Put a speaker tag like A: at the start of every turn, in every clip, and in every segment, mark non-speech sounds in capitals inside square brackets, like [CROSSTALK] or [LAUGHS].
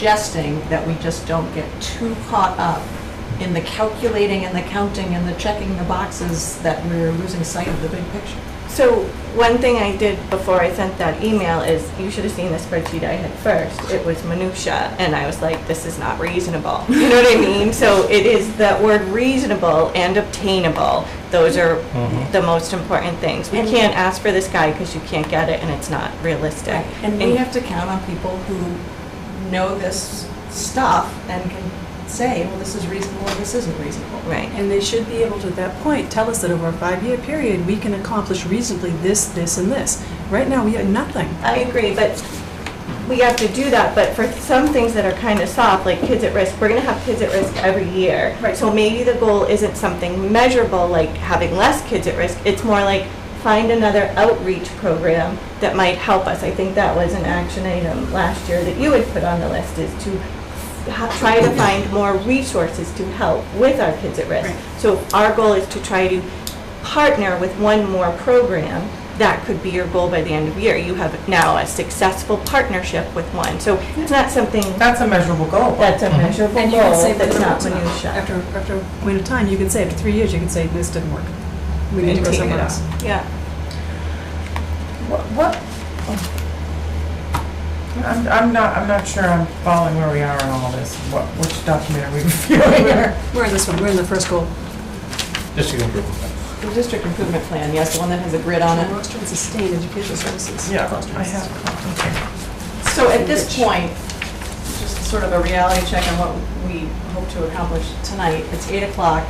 A: suggesting that we just don't get too caught up in the calculating and the counting and the checking the boxes that we're losing sight of the big picture.
B: So one thing I did before I sent that email is, you should have seen the spreadsheet I had first. It was minutia, and I was like, this is not reasonable. [LAUGHS] You know what I mean? So it is that word reasonable and obtainable. Those are the most important things. We
A: And-
B: can't ask for this guy because you can't get it, and it's not realistic.
A: And we have to count on people who know this stuff and can say, well, this is reasonable and this isn't reasonable.
B: Right.
C: And they should be able to, at that point, tell us that over a five-year period, we can accomplish reasonably this, this, and this. Right now, we have nothing.
B: I agree, but we have to do that, but for some things that are kind of soft, like kids at risk, we're gonna have kids at risk every year.
C: Right.
B: So maybe the goal isn't something measurable, like having less kids at risk, it's more like find another outreach program that might help us. I think that was an action item last year that you had put on the list, is to ha- try to find more resources to help with our kids at risk.
C: Right.
B: So our goal is to try to partner with one more program, that could be your goal by the end of the year. You have now a successful partnership with one. So it's not something
D: That's a measurable goal.
B: that's
A: Mm-hmm.
B: a measurable
C: And you
B: goal,
C: can say
B: that's not
C: whether it's
B: minutia.
C: After, after a point of time, you can say, after three years, you can say, this didn't work. We need to go
D: Maintain it
C: somewhere
D: up.
C: else.
B: Yeah,
D: What- What? I'm, I'm not, I'm not sure I'm following where we are on all this. What, which document are we reviewing here?
C: [LAUGHS] We're in this one, we're in the first goal.
E: District improvement.
A: The district improvement plan, yes, the one that has a grid on it.
C: Foster and sustain education services.
D: Yeah,
C: Foster and
D: I have, okay.
A: So at this point, just sort of a reality check on what we hope to accomplish tonight. It's 8 o'clock.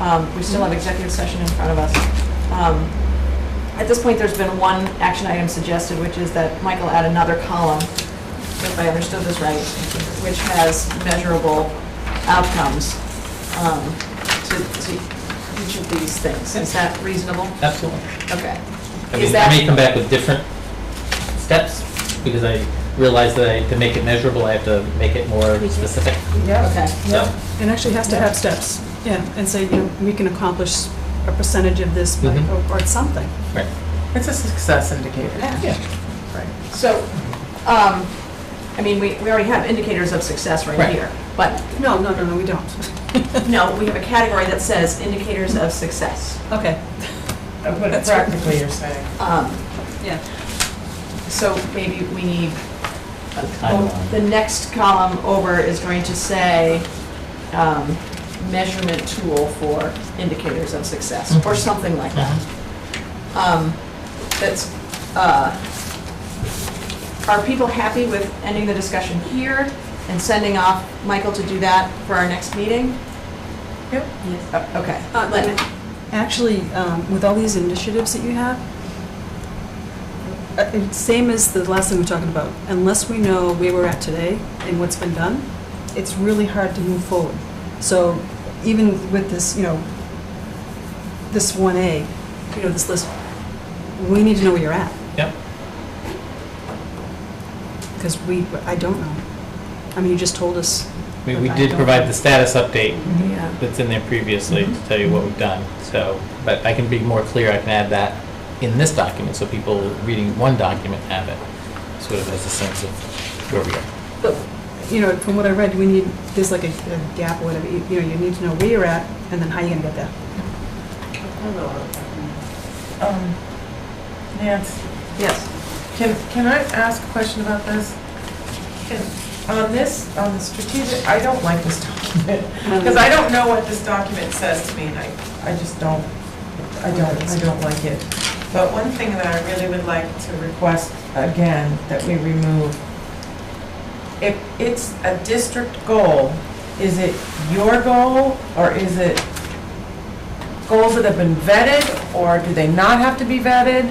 A: Um, We still have executive session in front of us. Um, At this point, there's been one action item suggested, which is that Michael add another column, if I understood this right, which has measurable outcomes um, to to each of these things. Is that reasonable?
E: Absolutely.
A: Okay.
E: I
A: Is
E: mean, I may
A: that-
E: come back with different steps because I realize that I, to make it measurable, I have to make it more specific.
D: Yeah.
A: Okay.
E: So,
C: It actually has to have steps, yeah, and say, you know, we can accomplish a percentage of this, by-
E: Mhm.
C: or or something.
E: right.
D: [LAUGHS] It's a success indicator.
A: So, um, I mean, we, we already have indicators of success right
E: Right.
A: here. But,
C: No, no, no, no, we don't. [LAUGHS]
A: no, we have a category that says indicators of success.
C: Okay,
D: But practically, you're saying.
A: Um,
C: yeah.
A: So maybe we need, oh,
E: timeline.
A: the next column over is going to say um, measurement tool for indicators of success, or something like that. Um, That's, uh, are people happy with ending the discussion here and sending off Michael to do that for our next meeting?
D: Yep.
A: Uh, Okay.
C: Uh,
A: Let-
C: and Actually, um, with all these initiatives that you have, uh, it's same as the last thing we were talking about, unless we know where we're at today and what's been done, it's really hard to move forward. So even with this, you know, this 1A, you know, this list, we need to know where you're at,
E: Yep.
C: because we, I don't know. I mean, you just told us.
E: I mean, we did provide the status update
A: Yeah.
E: that's in there previously to tell you what we've done. So, but I can be more clear, I can add that in this document, so people reading one document have it, sort of as a sense of where we are.
C: But, you know, from what I read, we need, there's like a a gap or whatever, you you know, you need to know where you're at, and then how you're gonna get there.
D: Um, Nance,
A: Yes.
D: can, can I ask a question about this? Can- On this, on the strategic, I don't like this [LAUGHS] document, because I don't know what this document says to me, and I, I just don't, I don't, I don't like it. But one thing that I really would like to request again, that we remove, if it's a district goal, is it your goal, or is it goals that have been vetted, or do they not have to be vetted?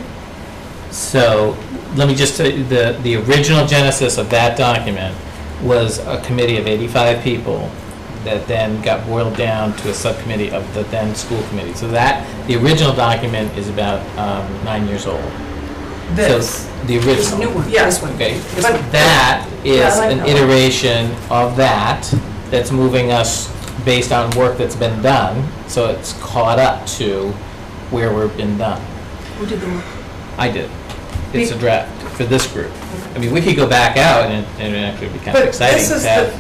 E: So, let me just, tell you, the, the original genesis of that document was a committee of 85 people that then got boiled down to a subcommittee of the then school committee. So that, the original document is about um, nine years old.
D: This.
E: So The
C: This new
E: original.
C: one, this one.
E: Okay,
C: This
D: But-
C: one.
E: that
D: Yeah, I
E: is
D: like
E: an
D: that one.
E: iteration of that, that's moving us based on work that's been done, so it's caught up to where we've been done.
C: Who did the work?
E: I did. it's a draft for this group. I mean, we could go back out and it- and it'd actually be kind of
D: But
E: exciting
D: this is
E: to have.
D: the-